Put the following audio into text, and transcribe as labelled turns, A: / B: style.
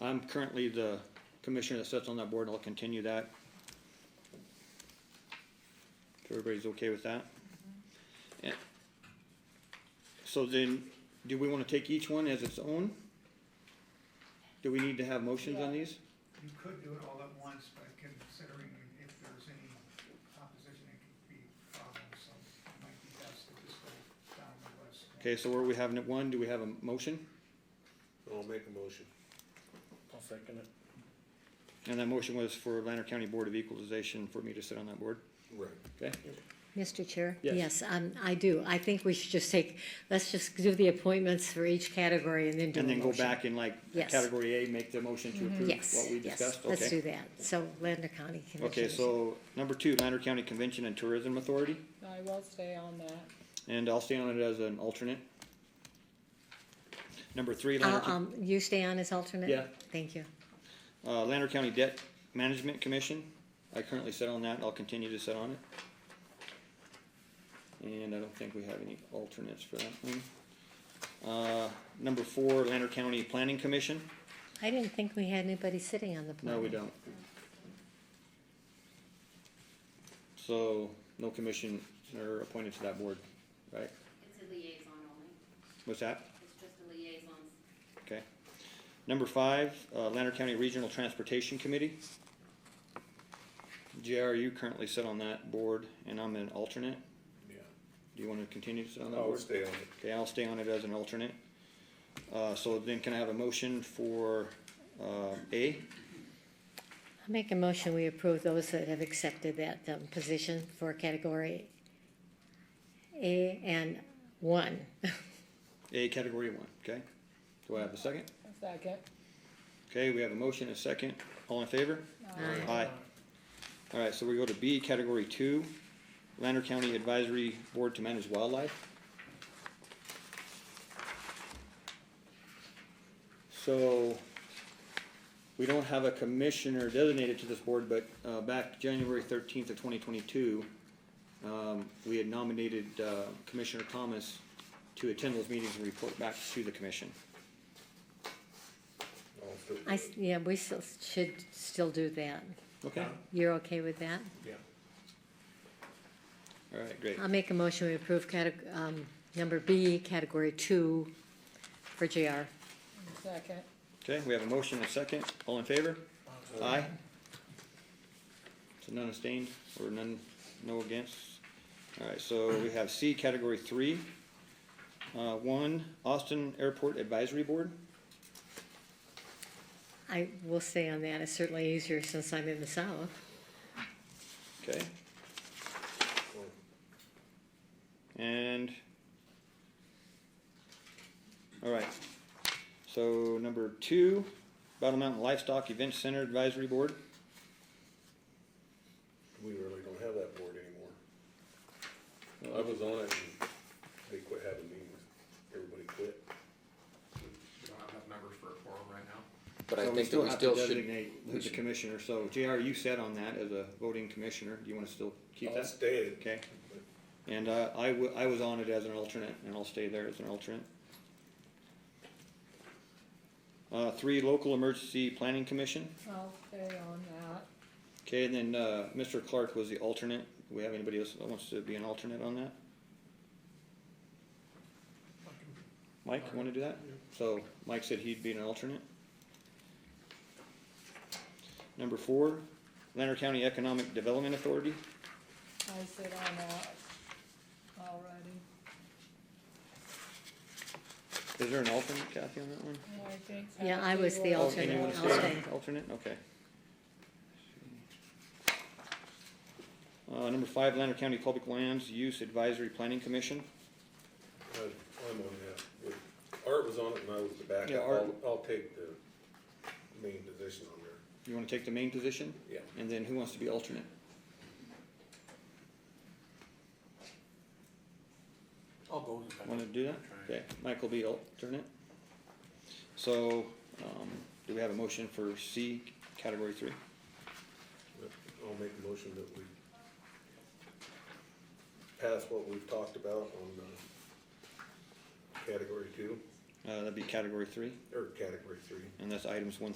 A: I'm currently the commissioner that sits on that board, and I'll continue that. If everybody's okay with that? And- So then, do we wanna take each one as its own? Do we need to have motions on these?
B: You could do it all at once, but considering if there's any opposition, it could be problems, so it might be best to just go down the list.
A: Okay, so where we have one, do we have a motion?
C: I'll make a motion.
D: I'll second it.
A: And that motion was for Lander County Board of Equalization for me to sit on that board,
C: Right.
A: okay?
E: Mr. Chair?
A: Yes.
E: um, I do. I think we should just take, let's just do the appointments for each category and then do a
A: And then go
E: motion.
A: back and like,
E: Yes. Mm-hmm.
A: category A, make the motion to approve
E: Yes,
A: what we
E: yes,
A: discussed, okay?
E: let's do that. So Lander County Commission.
A: Okay, so number two, Lander County Convention and Tourism Authority,
F: I will stay on that.
A: and I'll stay on it as an alternate. Number three, Lander,
E: I'll-
A: County-
E: Um, you stay on as alternate?
A: Yeah.
E: Thank you.
A: uh, Lander County Debt Management Commission, I currently sit on that, I'll continue to sit on it. And I don't think we have any alternates for that one. Uh, number four, Lander County Planning Commission,
E: I didn't think we had anybody sitting on the
A: no,
E: planning.
A: we don't. So, no commission are appointed to that board, right?
G: It's a liaison only,
A: What's that?
G: it's just a liaison.
A: Okay. Number five, uh, Lander County Regional Transportation Committee. JR, you currently sit on that board, and I'm an alternate.
C: Yeah.
A: Do you wanna continue to sit on that
C: I'll
A: board?
C: stay on it.
A: Okay, I'll stay on it as an alternate. Uh, so then can I have a motion for, uh, A?
E: I make a motion, we approve those that have accepted that, um, position for category A and one.
A: A category one, okay? Do I have a second?
F: Second.
A: Okay, we have a motion, a second. All in favor?
E: Aye.
A: Aye. All right, so we go to B, category two, Lander County Advisory Board to Manage Wildlife. So, we don't have a commissioner designated to this board, but, uh, back January thirteenth of twenty twenty-two, um, we had nominated, uh, Commissioner Thomas to attend those meetings and report back to the commission.
C: I'll still do
E: I,
C: it.
E: s- yeah, we still should still do that.
A: Okay?
E: You're okay with that?
C: Yeah.
A: All right, great.
E: I'll make a motion, we approve categ- um, number B, category two for JR.
F: Second.
A: Okay, we have a motion and a second. All in favor? Aye. So none abstained or none, no against? Alright, so we have C, category three. Uh, one, Austin Airport Advisory Board.
E: I will stay on that, it's certainly easier since I'm in the south.
A: Okay. And, alright, so number two, Battle Mountain Livestock Event Center Advisory Board.
C: We really don't have that board anymore. I was on it and they quit having meetings. Everybody quit.
H: We don't have enough members for a forum right now.
I: But I
A: So
I: think that we
A: have
I: still
A: to
I: should,
A: designate Who's the commissioner, so JR, you sat on that as a voting commissioner, do you wanna still keep
C: I'll
A: that?
C: stay.
A: Okay, and, uh, I wa- I was on it as an alternate, and I'll stay there as an alternate. Uh, three, local emergency planning commission,
F: I'll stay on that.
A: okay, and then, uh, Mr. Clark was the alternate, do we have anybody else that wants to be an alternate on that? Mike, you wanna do that? So, Mike said he'd be an alternate. Number four, Lander County Economic Development Authority,
F: I sit on that already.
A: is there an alternate, Kathy, on that one?
F: And I think
E: Yeah, I
F: Kathy
E: was the
F: will
A: Oh,
F: be
A: and you
E: alternate.
A: wanna
F: the
E: I'll
A: stay
E: stay.
A: Alternate, okay. Uh, number five, Lander County Public Lands Use Advisory Planning Commission.
C: I- I'm on that. Art was on it and I was the backup.
A: Yeah, Art-
C: I'll, I'll take the main position on there.
A: You wanna take the main position?
C: Yeah.
A: And then who wants to be alternate?
D: I'll go with that.
A: Wanna do that? Okay, Mike will be alternate. So, um, do we have a motion for C, category three?
C: I'll make a motion that we pass what we've talked about on, uh, category two,
A: Uh, that'd be category three,
C: or category three.
A: and that's items one